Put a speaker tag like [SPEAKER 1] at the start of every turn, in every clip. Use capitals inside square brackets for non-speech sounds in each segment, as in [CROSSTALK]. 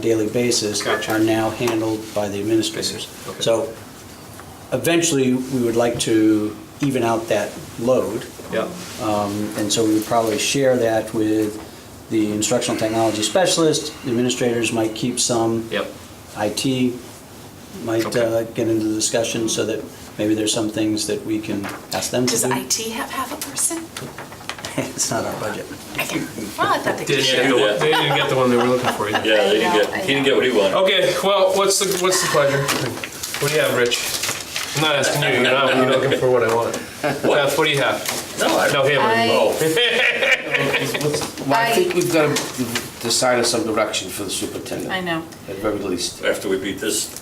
[SPEAKER 1] daily basis
[SPEAKER 2] Gotcha.
[SPEAKER 1] are now handled by the administrators.
[SPEAKER 2] I see. Okay.
[SPEAKER 1] So eventually, we would like to even out that load, um,
[SPEAKER 2] Yeah,
[SPEAKER 1] and so we would probably share that with the instructional technology specialist. The Administrators might keep some.
[SPEAKER 2] yep,
[SPEAKER 1] IT might
[SPEAKER 2] Okay.
[SPEAKER 1] uh, get into the discussion so that maybe there's some things that we can ask them to
[SPEAKER 3] Does
[SPEAKER 1] do.
[SPEAKER 3] IT have half a person?
[SPEAKER 1] [LAUGHS] It's not our budget.
[SPEAKER 3] I can, well, I thought they could
[SPEAKER 2] didn't
[SPEAKER 3] share.
[SPEAKER 2] get the
[SPEAKER 4] Yeah.
[SPEAKER 2] one, they didn't get the one they were looking for either.
[SPEAKER 4] Yeah, they didn't get, he didn't get what he wanted.
[SPEAKER 2] [LAUGHS] Okay, well, what's the, what's the pleasure? What do you have, Rich? I'm not asking you, you're not, you're looking for what I want. Beth, what do you
[SPEAKER 5] [LAUGHS]
[SPEAKER 2] have?
[SPEAKER 4] No, I
[SPEAKER 2] No,
[SPEAKER 4] don't.
[SPEAKER 2] him.
[SPEAKER 5] I-
[SPEAKER 6] Well, I
[SPEAKER 5] I-
[SPEAKER 6] think we've got to decide on some direction for the superintendent.
[SPEAKER 5] I know.
[SPEAKER 6] At very least.
[SPEAKER 4] After we beat this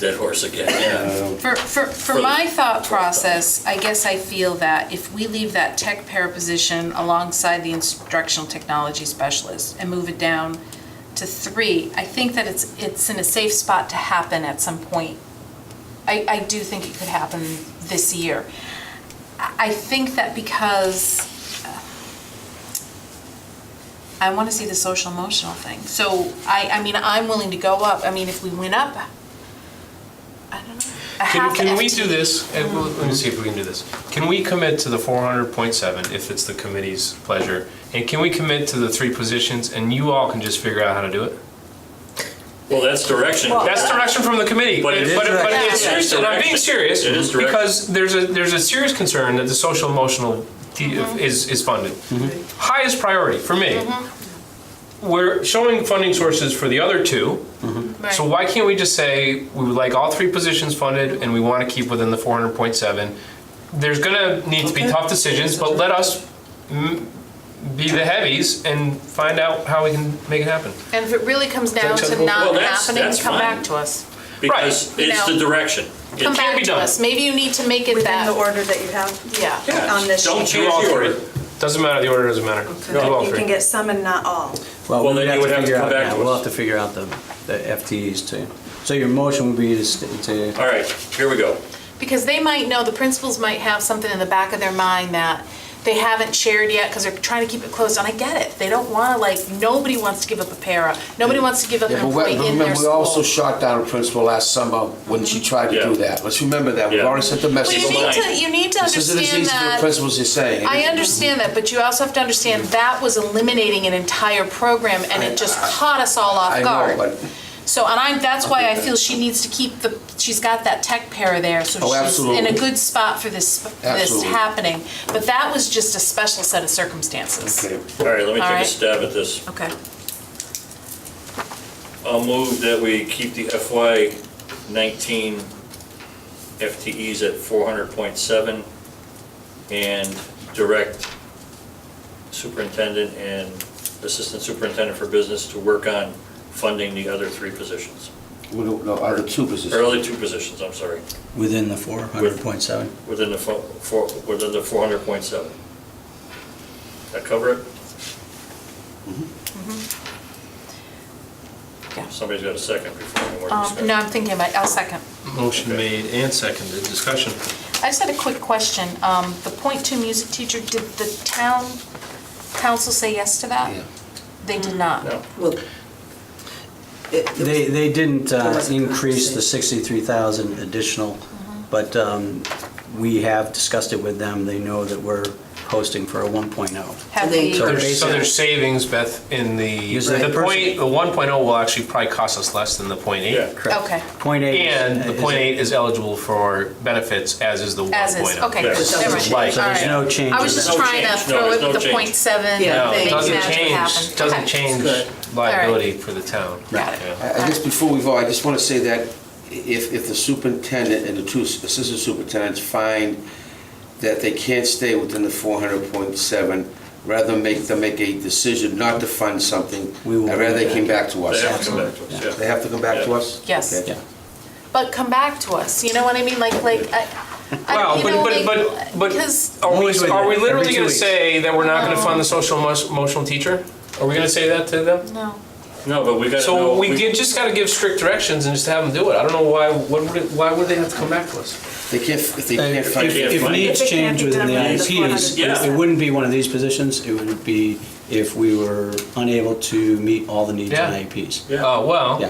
[SPEAKER 4] dead horse again, yeah.
[SPEAKER 6] Uh,
[SPEAKER 5] For, for, for my thought process, I guess I feel that if we leave that tech para position alongside the instructional technology specialist and move it down to three, I think that it's, it's in a safe spot to happen at some point. I, I do think it could happen this year. I I think that because uh, I want to see the social emotional thing. So I, I mean, I'm willing to go up. I mean, if we went up, I don't know. a
[SPEAKER 2] Can,
[SPEAKER 5] half
[SPEAKER 2] can we
[SPEAKER 5] FTE.
[SPEAKER 2] do this? And we'll- Let me see if we can do this. Can we commit to the four hundred point seven if it's the committee's pleasure? And can we commit to the three positions and you all can just figure out how to do it?
[SPEAKER 4] Well, that's direction.
[SPEAKER 2] That's direction from the committee.
[SPEAKER 4] But it is
[SPEAKER 2] But
[SPEAKER 4] direction.
[SPEAKER 2] it's serious, and I'm being serious.
[SPEAKER 4] It is direction.
[SPEAKER 2] Because there's a, there's a serious concern that the social emotional de- is, is funded.
[SPEAKER 4] Mm-hmm.
[SPEAKER 2] Highest priority for me. We're showing funding sources for the other two.
[SPEAKER 5] Right.
[SPEAKER 2] So why can't we just say, we would like all three positions funded and we want to keep within the four hundred point seven? There's gonna need to be tough decisions, but let us mm, be the heavies and find out how we can make it happen.
[SPEAKER 5] And if it really comes down
[SPEAKER 2] Is that
[SPEAKER 5] to
[SPEAKER 2] acceptable?
[SPEAKER 5] not
[SPEAKER 4] Well, that's-
[SPEAKER 5] happening,
[SPEAKER 4] that's
[SPEAKER 5] come
[SPEAKER 4] fine.
[SPEAKER 5] back to us.
[SPEAKER 4] Because
[SPEAKER 5] Right.
[SPEAKER 4] it's the
[SPEAKER 5] No.
[SPEAKER 4] direction. It
[SPEAKER 5] Come
[SPEAKER 4] can't
[SPEAKER 5] back
[SPEAKER 2] be
[SPEAKER 5] to
[SPEAKER 2] done.
[SPEAKER 5] us. Maybe you need to make it
[SPEAKER 7] Within the
[SPEAKER 5] that.
[SPEAKER 7] order that you have
[SPEAKER 5] Yeah.
[SPEAKER 4] Yeah,
[SPEAKER 7] on this sheet.
[SPEAKER 4] Don't
[SPEAKER 2] Do
[SPEAKER 4] change
[SPEAKER 2] all
[SPEAKER 4] the
[SPEAKER 2] three.
[SPEAKER 4] order.
[SPEAKER 2] Doesn't matter, the order doesn't matter. Do all
[SPEAKER 7] You
[SPEAKER 2] three.
[SPEAKER 7] can get some and not all.
[SPEAKER 4] Well,
[SPEAKER 1] Well, we
[SPEAKER 4] then
[SPEAKER 1] have
[SPEAKER 4] you
[SPEAKER 1] to
[SPEAKER 4] would have
[SPEAKER 1] figure
[SPEAKER 4] to come
[SPEAKER 1] out,
[SPEAKER 4] back
[SPEAKER 1] yeah,
[SPEAKER 4] to
[SPEAKER 1] we'll
[SPEAKER 4] us.
[SPEAKER 1] have to figure out the, the FTEs too. So your motion would be to, st- to
[SPEAKER 4] All right, here we go.
[SPEAKER 5] Because they might know, the principals might have something in the back of their mind that they haven't shared yet because they're trying to keep it closed. And I get it. They don't want to, like, nobody wants to give up a para. Nobody wants to give up an
[SPEAKER 6] But we-
[SPEAKER 5] employee
[SPEAKER 6] but
[SPEAKER 5] in their
[SPEAKER 6] remember, we
[SPEAKER 5] school.
[SPEAKER 6] also shot down a principal last summer when she tried to
[SPEAKER 4] Yeah.
[SPEAKER 6] do that. Let's remember that. We've
[SPEAKER 4] Yeah.
[SPEAKER 6] already sent the
[SPEAKER 5] Well,
[SPEAKER 6] message.
[SPEAKER 5] you need
[SPEAKER 4] Mine.
[SPEAKER 5] to, you need to
[SPEAKER 6] This isn't as
[SPEAKER 5] understand
[SPEAKER 6] easy for
[SPEAKER 5] that.
[SPEAKER 6] principals as saying.
[SPEAKER 5] I understand that, but you also have to understand that was eliminating an entire program and it just caught us all off
[SPEAKER 6] I
[SPEAKER 5] guard.
[SPEAKER 6] know, but,
[SPEAKER 5] So, and I'm, that's why I feel she needs to keep the, she's got that tech pair there, so
[SPEAKER 6] Oh,
[SPEAKER 5] she's in a
[SPEAKER 6] absolutely.
[SPEAKER 5] good spot for this, this
[SPEAKER 6] Absolutely.
[SPEAKER 5] happening. But that was just a special set of circumstances.
[SPEAKER 6] okay.
[SPEAKER 4] All right, let me
[SPEAKER 5] All
[SPEAKER 4] take a
[SPEAKER 5] right.
[SPEAKER 4] stab at this.
[SPEAKER 5] Okay.
[SPEAKER 4] I'll move that we keep the FY nineteen FTEs at four hundred point seven and direct superintendent and assistant superintendent for business to work on funding the other three positions,
[SPEAKER 6] We don't know, other two
[SPEAKER 4] or
[SPEAKER 6] positions.
[SPEAKER 4] other two positions, I'm sorry,
[SPEAKER 1] within the 400.7.
[SPEAKER 4] within the fo- four, within the four hundred point seven. That cover it?
[SPEAKER 5] Mm-hmm. Yeah.
[SPEAKER 4] Somebody's got a second before any more
[SPEAKER 5] Um,
[SPEAKER 4] discussion.
[SPEAKER 5] no, I'm thinking about, I'll second.
[SPEAKER 2] Motion made and seconded, discussion.
[SPEAKER 5] I just had a quick question. Um, the point two music teacher, did the town council say yes to that?
[SPEAKER 6] Yeah.
[SPEAKER 5] They did not.
[SPEAKER 4] No.
[SPEAKER 8] Well, it- it
[SPEAKER 1] They, they didn't
[SPEAKER 8] There
[SPEAKER 1] uh,
[SPEAKER 8] was a
[SPEAKER 1] increase the
[SPEAKER 8] conversation.
[SPEAKER 1] 63,000 additional, but um, we have discussed it with them. They know that we're posting for a oh. 1.0.
[SPEAKER 5] Have
[SPEAKER 8] They-
[SPEAKER 5] we?
[SPEAKER 1] So
[SPEAKER 2] There's- So
[SPEAKER 1] basically-
[SPEAKER 2] there's savings, Beth, in the,
[SPEAKER 1] Use that
[SPEAKER 2] the
[SPEAKER 1] person.
[SPEAKER 2] point, the one will actually probably cost us less than the point
[SPEAKER 4] Yeah.
[SPEAKER 2] eight.
[SPEAKER 1] Correct.
[SPEAKER 5] Okay.
[SPEAKER 1] Point eight. is-
[SPEAKER 2] And the
[SPEAKER 1] is-
[SPEAKER 2] point eight is eligible for benefits, as is the one oh.
[SPEAKER 5] As is, okay.
[SPEAKER 4] Yeah.
[SPEAKER 5] good.
[SPEAKER 8] So
[SPEAKER 5] Never
[SPEAKER 8] there's
[SPEAKER 5] mind.
[SPEAKER 1] So there's
[SPEAKER 5] All right.
[SPEAKER 1] no change.
[SPEAKER 5] I was
[SPEAKER 1] in
[SPEAKER 5] just
[SPEAKER 1] that.
[SPEAKER 4] No
[SPEAKER 5] trying to
[SPEAKER 4] change. No,
[SPEAKER 5] throw
[SPEAKER 4] there's
[SPEAKER 5] it
[SPEAKER 4] no
[SPEAKER 5] the
[SPEAKER 4] change.
[SPEAKER 5] point seven.
[SPEAKER 2] No,
[SPEAKER 8] Yeah, I
[SPEAKER 2] it
[SPEAKER 8] think
[SPEAKER 2] doesn't
[SPEAKER 5] magic
[SPEAKER 2] change,
[SPEAKER 5] happened.
[SPEAKER 2] doesn't
[SPEAKER 5] Okay.
[SPEAKER 2] change
[SPEAKER 8] Good.
[SPEAKER 2] liability for the town.
[SPEAKER 5] Got it.
[SPEAKER 2] Yeah.
[SPEAKER 6] I I guess before we vote, I just want to say that if, if the superintendent and the two assistant superintendents find that they can't stay within the 400.7, rather than make them make a decision not to fund something,
[SPEAKER 1] We will
[SPEAKER 6] I'd rather they came back to
[SPEAKER 4] They have
[SPEAKER 6] us.
[SPEAKER 4] to come back to us, yeah.
[SPEAKER 6] They have to come back to us?
[SPEAKER 5] Yes.
[SPEAKER 6] Okay.
[SPEAKER 1] Yeah.
[SPEAKER 5] But come back to us, you know what I mean? Like, like, I, I
[SPEAKER 2] Well,
[SPEAKER 5] you know,
[SPEAKER 2] but,
[SPEAKER 5] like,
[SPEAKER 2] but, but,
[SPEAKER 5] because
[SPEAKER 2] but, are
[SPEAKER 1] Always
[SPEAKER 2] we,
[SPEAKER 1] with
[SPEAKER 2] are we
[SPEAKER 1] it.
[SPEAKER 2] literally
[SPEAKER 1] Every two
[SPEAKER 2] gonna
[SPEAKER 1] weeks.
[SPEAKER 2] say that we're not gonna fund the
[SPEAKER 5] Uh-huh.
[SPEAKER 2] social emo- emotional teacher? Are we gonna say that to them?
[SPEAKER 5] no.
[SPEAKER 4] No, but we gotta know.
[SPEAKER 2] So Uh, we get, just gotta give strict directions and just have them do it. I don't know why, what would, it- why would they have to come back to us?
[SPEAKER 6] They can't, if they can't
[SPEAKER 1] Uh, If
[SPEAKER 6] fund
[SPEAKER 4] can't
[SPEAKER 1] if
[SPEAKER 4] find it.
[SPEAKER 1] needs
[SPEAKER 7] If it can't
[SPEAKER 1] change
[SPEAKER 7] be
[SPEAKER 1] within
[SPEAKER 7] done
[SPEAKER 1] the
[SPEAKER 7] within the
[SPEAKER 1] IEPs,
[SPEAKER 7] 400.
[SPEAKER 1] it- it wouldn't be one of these positions, it would be
[SPEAKER 2] if we were unable to meet all the needs
[SPEAKER 1] Yeah.
[SPEAKER 2] in IEPs.
[SPEAKER 1] Oh, well.
[SPEAKER 2] Uh, Yeah.